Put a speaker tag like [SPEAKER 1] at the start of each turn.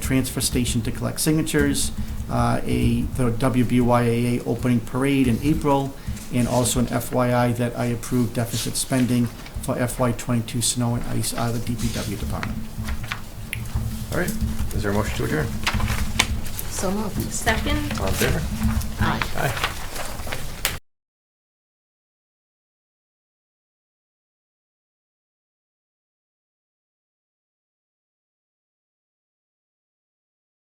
[SPEAKER 1] transfer station to collect signatures, uh, a, the WBYAA opening parade in April, and also an FYI that I approved deficit spending for FY twenty-two snow and ice out of the DPW department.
[SPEAKER 2] All right, is there a motion to adjourn?
[SPEAKER 3] So moved.
[SPEAKER 4] Second?
[SPEAKER 2] All in favor?
[SPEAKER 4] Aye.
[SPEAKER 2] Aye.